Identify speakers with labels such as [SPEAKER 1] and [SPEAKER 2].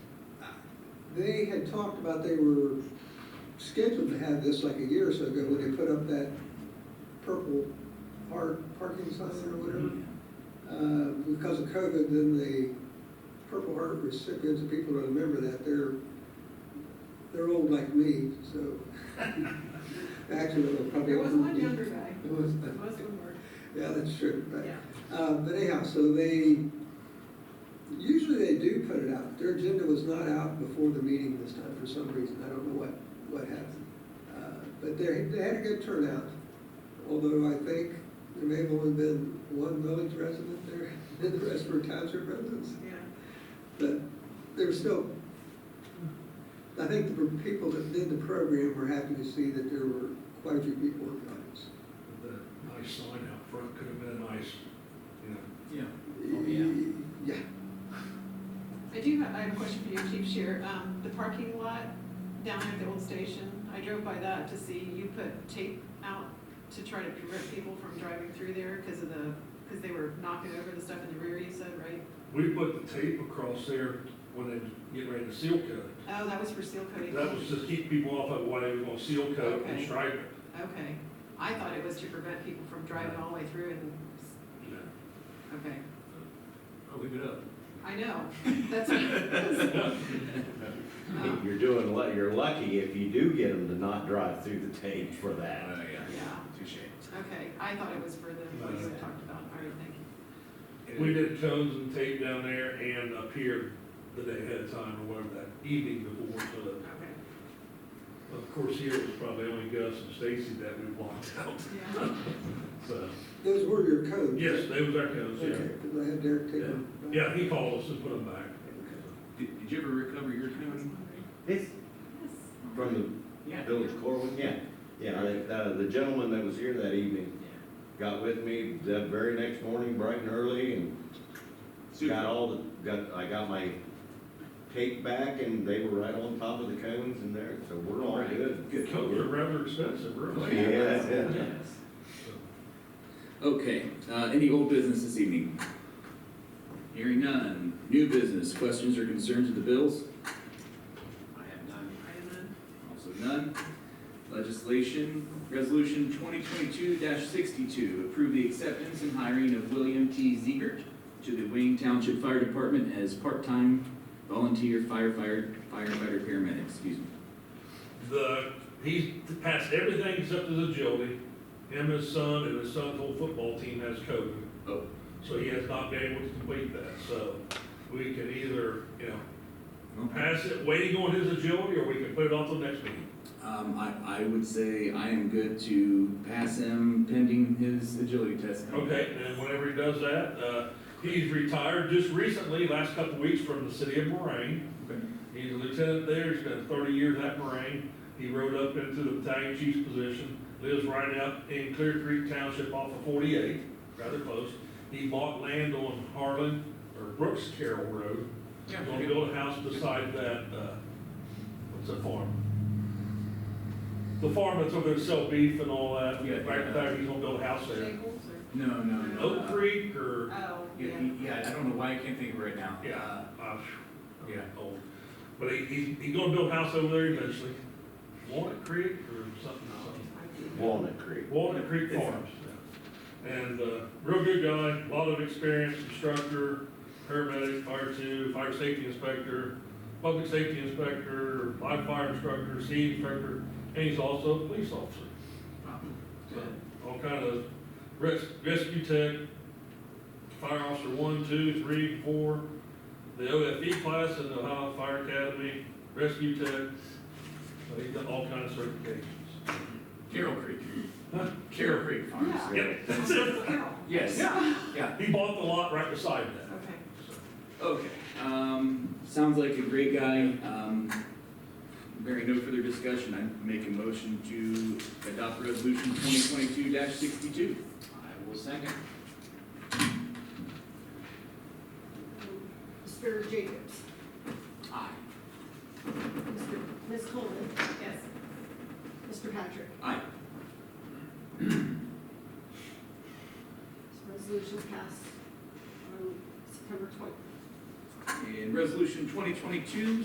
[SPEAKER 1] they had talked about they were scheduled to have this like a year or so ago, when they put up that purple park, parking sign or whatever. Uh, because of COVID, then the Purple Heart recipients, and people don't remember that, they're, they're old like me, so. Actually, they're probably.
[SPEAKER 2] There was
[SPEAKER 1] older
[SPEAKER 2] one
[SPEAKER 1] than-
[SPEAKER 2] younger guy.
[SPEAKER 1] There was.
[SPEAKER 2] There was one more.
[SPEAKER 1] Yeah, that's true, but.
[SPEAKER 2] Yeah.
[SPEAKER 1] Uh, but anyhow, so they, usually they do put it out. Their agenda was not out before the meeting this time for some reason. I don't know what, what happened. Uh, But they, they had a good turnout, although I think there may have only been one village resident there, and the rest were township residents.
[SPEAKER 2] Yeah.
[SPEAKER 1] But there was still, I think the people that did the program were happy to see that there were quite a few people in the audience.
[SPEAKER 3] That nice sign out front could have been nice, you know.
[SPEAKER 4] Yeah.
[SPEAKER 1] Yeah.
[SPEAKER 2] I do have, I have a question for you, Chief Shear. Um, the parking lot down at the old station, I drove by that to see you put tape out to try to prevent people from driving through there because of the, because they were knocking over the stuff in the rear, you said, right?
[SPEAKER 3] We put the tape across there when they get ready to seal coat it.
[SPEAKER 2] Oh, that was for seal coating?
[SPEAKER 3] That was to keep people off of why they were gonna seal coat and
[SPEAKER 2] Okay.
[SPEAKER 3] stripe it.
[SPEAKER 2] Okay. I thought it was to prevent people from driving all the way through and,
[SPEAKER 3] you know.
[SPEAKER 2] okay.
[SPEAKER 4] I'll leave it up.
[SPEAKER 2] I know, that's. Um,
[SPEAKER 5] You're doing, lu- you're lucky if you do get them to not drive through the tape for that.
[SPEAKER 4] Oh, yeah.
[SPEAKER 2] Yeah,
[SPEAKER 4] Touche.
[SPEAKER 2] okay. I thought it was for the, what you had talked about. All right, thank you.
[SPEAKER 3] We did cones and tape down there and up here the day ahead of time or whatever that evening before. so that-
[SPEAKER 2] Okay.
[SPEAKER 3] Of course, here it was probably only Gus and Stacy that we blocked out,
[SPEAKER 2] Yeah.
[SPEAKER 3] so.
[SPEAKER 1] Those were your codes?
[SPEAKER 3] Yes, they was our cones,
[SPEAKER 1] Okay,
[SPEAKER 3] yeah.
[SPEAKER 1] because I had Derek take them.
[SPEAKER 3] Yeah, he called us and put them back.
[SPEAKER 4] Did, did you ever recover your coon?
[SPEAKER 5] It's
[SPEAKER 2] Yes.
[SPEAKER 5] from the
[SPEAKER 4] Yeah.
[SPEAKER 5] village Corwin, yeah. Yeah, I- uh, the gentleman that was here that evening got with me the very next morning, bright and early, and got
[SPEAKER 4] Super.
[SPEAKER 5] all the, got, I got my tape back, and they were right on top of the cones in there, so we're all
[SPEAKER 4] Right.
[SPEAKER 5] good.
[SPEAKER 3] The cones are rather expensive, really.
[SPEAKER 5] Yeah, yeah.
[SPEAKER 4] Yes.
[SPEAKER 3] So,
[SPEAKER 6] Okay, uh, any old business this evening? Hearing none. New business, questions or concerns of the bills?
[SPEAKER 4] I have none.
[SPEAKER 2] Item N.
[SPEAKER 6] Also none. Legislation, Resolution 2022-62, approve the acceptance and hiring of William T. Ziegert to the Wayne Township Fire Department as part-time volunteer firefighter, firefighter paramedic, excuse me.
[SPEAKER 3] The, he's passed everything except his agility. Him, his son, and his son's whole football team has COVID.
[SPEAKER 6] Oh.
[SPEAKER 3] So he has not been able to complete that, so we can either, you know, pass it, waiting on his agility, or we can put it off till next meeting.
[SPEAKER 6] Um, I, I would say I am good to pass him pending his agility test.
[SPEAKER 3] Okay, and whenever he does that, uh, he's retired just recently, last couple weeks from the city of Moraine.
[SPEAKER 6] Okay.
[SPEAKER 3] He's a lieutenant there, he's been thirty years at Moraine. He rode up into the battalion chief's position, lives right out in Clear Creek Township off of forty-eight, rather close. He bought land on Harlan, or Brooks Carroll Road,
[SPEAKER 4] Yeah.
[SPEAKER 3] gonna build a house beside that, uh, what's that farm? The farm that's over there to sell beef and all that,
[SPEAKER 4] Yeah,
[SPEAKER 3] back
[SPEAKER 4] yeah.
[SPEAKER 3] in fact, he's gonna build a house there.
[SPEAKER 2] Staples or?
[SPEAKER 6] No, no, no.
[SPEAKER 3] Oak
[SPEAKER 6] uh,
[SPEAKER 3] Creek or,
[SPEAKER 2] Oh,
[SPEAKER 4] Yeah,
[SPEAKER 2] yeah.
[SPEAKER 4] he- yeah, I don't know why I can't think of it right now.
[SPEAKER 3] yeah, uh,
[SPEAKER 4] Yeah.
[SPEAKER 3] old. But he, he, he gonna build a house over there eventually. Walnut Creek or something, something.
[SPEAKER 5] Walnut Creek.
[SPEAKER 3] Walnut Creek
[SPEAKER 4] It's-
[SPEAKER 3] Farms. And, uh, real good guy, lot of experience, instructor, paramedic, fire two, fire safety inspector, public safety inspector, live fire instructor, sea inspector, and he's also a police officer.
[SPEAKER 4] Wow.
[SPEAKER 3] So, all kind of res- rescue tech, fire officer one, two, three, four, the OFE class in the Ohio Fire Academy, rescue tech. So he's got all kind of certifications.
[SPEAKER 4] Carroll Creek.
[SPEAKER 3] Huh?
[SPEAKER 4] Carroll Creek Farms.
[SPEAKER 2] Yeah.
[SPEAKER 3] Yep, that's it.
[SPEAKER 4] Yes. Yeah.
[SPEAKER 3] He bought the lot right beside that.
[SPEAKER 2] Okay.
[SPEAKER 6] Okay, um, sounds like a great guy, um, bearing no further discussion, I make a motion to adopt resolution twenty twenty-two sixty-two.
[SPEAKER 4] I will second.
[SPEAKER 7] Mr. Jacobs,
[SPEAKER 6] Aye.
[SPEAKER 7] Mr. Ms. Coleman,
[SPEAKER 2] Yes.
[SPEAKER 7] Mr. Patrick.
[SPEAKER 6] Aye.
[SPEAKER 7] This resolution passed on September 20th.
[SPEAKER 6] And resolution twenty twenty-two